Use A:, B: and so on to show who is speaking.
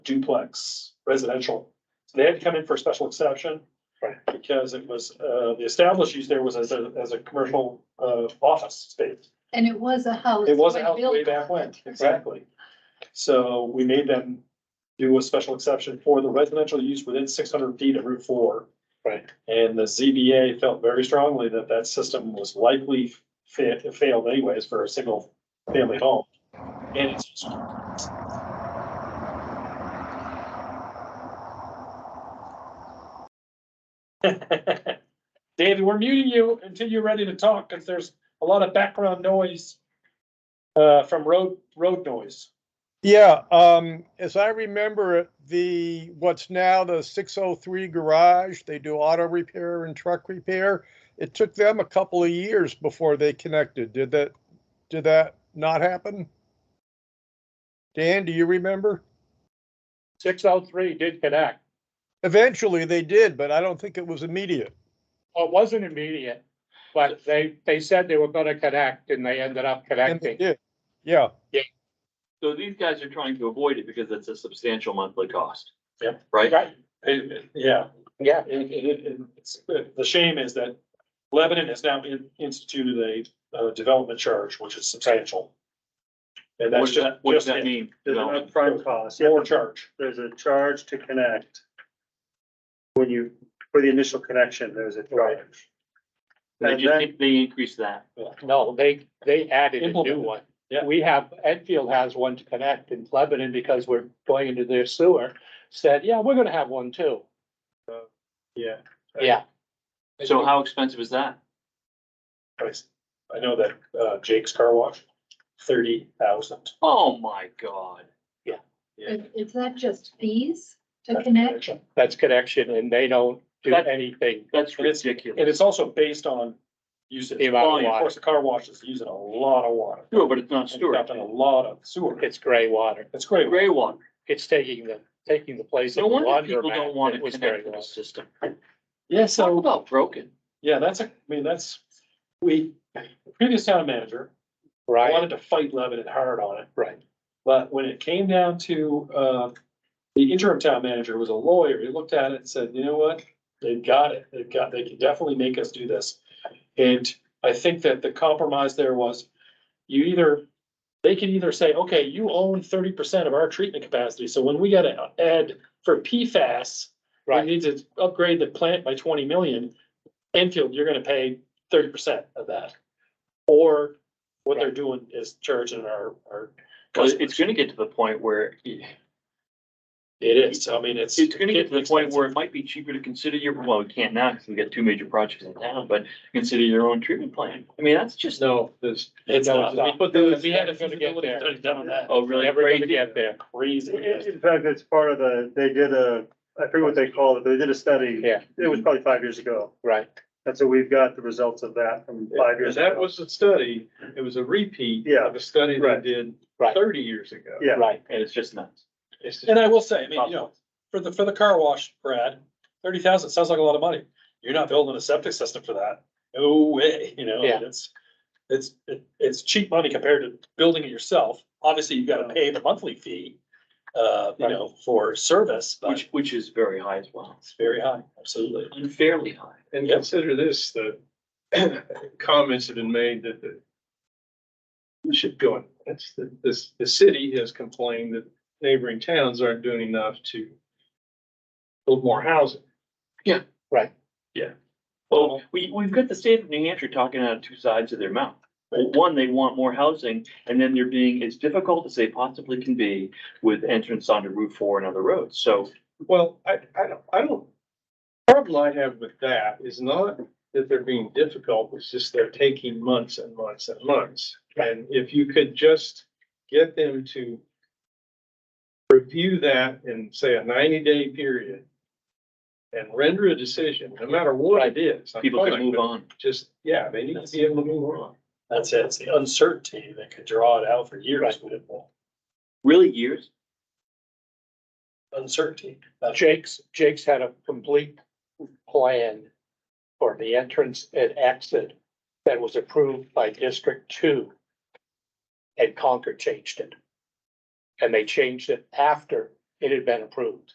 A: duplex residential. So they had to come in for a special exception.
B: Right.
A: Because it was, uh, the established use there was as a, as a commercial, uh, office space.
C: And it was a house.
A: It was a
C: when
A: house way
C: built.
A: back when, exactly. So we made them do a special exception for the residential use within six hundred feet of Route four.
B: Right.
A: And the ZBA felt very strongly that that system was likely fa- failed anyways for a single family home. And it's, David, we're muting you until you're ready to talk, because there's a lot of background noise uh, from road, road noise.
D: Yeah, um, as I remember it, the, what's now the six oh three garage, they do auto repair and truck repair. It took them a couple of years before they connected. Did that, did that not happen? Dan, do you remember?
B: Six oh three did connect.
D: Eventually they did, but I don't think it was immediate.
B: Well, it wasn't immediate, but they, they said they were gonna connect and they ended up
D: And they
B: connecting.
D: did. Yeah,
E: So these guys are trying to avoid it because it's a substantial monthly cost.
A: Yeah.
E: Right?
A: Right. It- it- Yeah,
B: Yeah.
A: it- it- it- it's- the shame is that Lebanon has now in- instituted a, uh development charge, which is substantial. And
E: What
A: that's
E: does that,
A: just,
E: what does
A: just
E: that
A: it.
E: mean?
F: There's an
E: No.
F: upfront cost. yeah.
A: more charge.
F: There's a charge to connect. When you, for the initial connection, there's a charge.
E: They
F: And then-
E: just, they increase that.
B: No, they, they added a new
A: Implemented.
B: one.
A: Yeah.
B: We have, Enfield has one to connect in Lebanon because we're going into their sewer, said, yeah, we're gonna have one too.
A: Yeah.
B: Yeah.
E: So how expensive is that?
A: I know that uh, Jake's Car Wash, thirty thousand.
E: Oh, my God.
C: Is is that just fees to connect?
B: That's connection and they don't do
E: That-
B: anything.
E: That's
A: And
E: ridiculous.
A: it's also based on usage.
B: The amount of
A: Volume. Of
B: water.
A: course, the car wash is using a lot of water.
E: Sure, but it's not
A: And you're
E: storage.
A: dumping a lot of sewer.
B: It's gray water.
A: It's great.
E: Gray water.
B: It's taking the, taking the place of
E: No
B: the
E: wonder people don't
B: laundromat
E: want
B: that
E: to
B: was gray
E: connect to the
B: water.
E: system.
A: Yeah,
E: Talk
A: so,
E: about broken.
A: yeah, that's, a. I mean, that's, we, the previous town manager
B: Right,
A: wanted to fight Lebanon hard on it,
B: right.
A: but when it came down to, uh, the interim town manager was a lawyer, he looked at it and said, you know what? They've got it, they've got, they can definitely make us do this. And I think that the compromise there was, you either, they can either say, okay, you own thirty percent of our treatment capacity, so when we gotta add for PFAS, we
B: Right.
A: need to upgrade the plant by twenty million. Enfield, you're gonna pay thirty percent of that. Or what they're doing is charging our, our
E: Well,
A: customers.
E: It's gonna get to the point where,
A: It is, I mean, it's.
E: it's gonna get to the point where it might be cheaper to consider your, well, we can't now because we got two major projects in town, but consider your own treatment plan. I mean, that's just,
B: No, there's.
A: It's
B: No,
A: not,
B: it's not.
A: we put the,
B: It's
A: we had a
B: never gonna get
A: feasibility
B: there.
A: study done on that.
E: oh, really?
B: Never gonna
E: crazy.
B: get there.
A: Crazy.
F: In in fact, it's part of the, they did a, I forget what they called it, but they did a study.
B: Yeah.
F: It was probably five years ago.
B: Right.
F: And so we've got the results of that from five years.
G: That
F: ago.
G: was a study, it was a repeat
F: Yeah.
G: of a study they
F: Right.
G: did
B: Right.
G: thirty years ago.
F: Yeah.
B: Right.
E: And it's just nuts.
G: It's just-
A: And I will say, I mean, you know, for the, for the car wash, Brad, thirty thousand sounds like a lot of money. You're not building a septic system for that. No way, you know,
B: Yeah.
A: and it's, it's, it- it's cheap money compared to building it yourself. Obviously, you gotta pay the monthly fee, uh, you
B: Right.
A: know, for service,
E: Which,
A: which
E: which is very high as well,
A: it's very high, absolutely.
E: unfairly high.
G: And
A: Yep.
G: consider this, the comments have been made that the we should go, on. it's the, this, the city has complained that neighboring towns aren't doing enough to build more housing.
E: Well, we, we've got the state of New Hampshire talking out of two sides of their mouth. One, they want more housing, and then they're being as difficult as they possibly can be with entrance onto Route Four and other roads, so.
G: Well, I, I don't, I don't, problem I have with that is not that they're being difficult, it's just they're taking months and months and months. And if you could just get them to review that in, say, a ninety-day period and render a decision, no matter what it is. I'm
E: People can
G: fine
E: move
G: with
E: on.
G: Just, yeah, they need to be able to move on.
A: That's it. It's the uncertainty that could draw it out for years. with it.
E: Really, years?
A: Uncertainty. That's
B: Jake's, Jake's had a complete plan for the entrance and exit that was approved by District Two. And Concord changed it. And they changed it after it had been approved.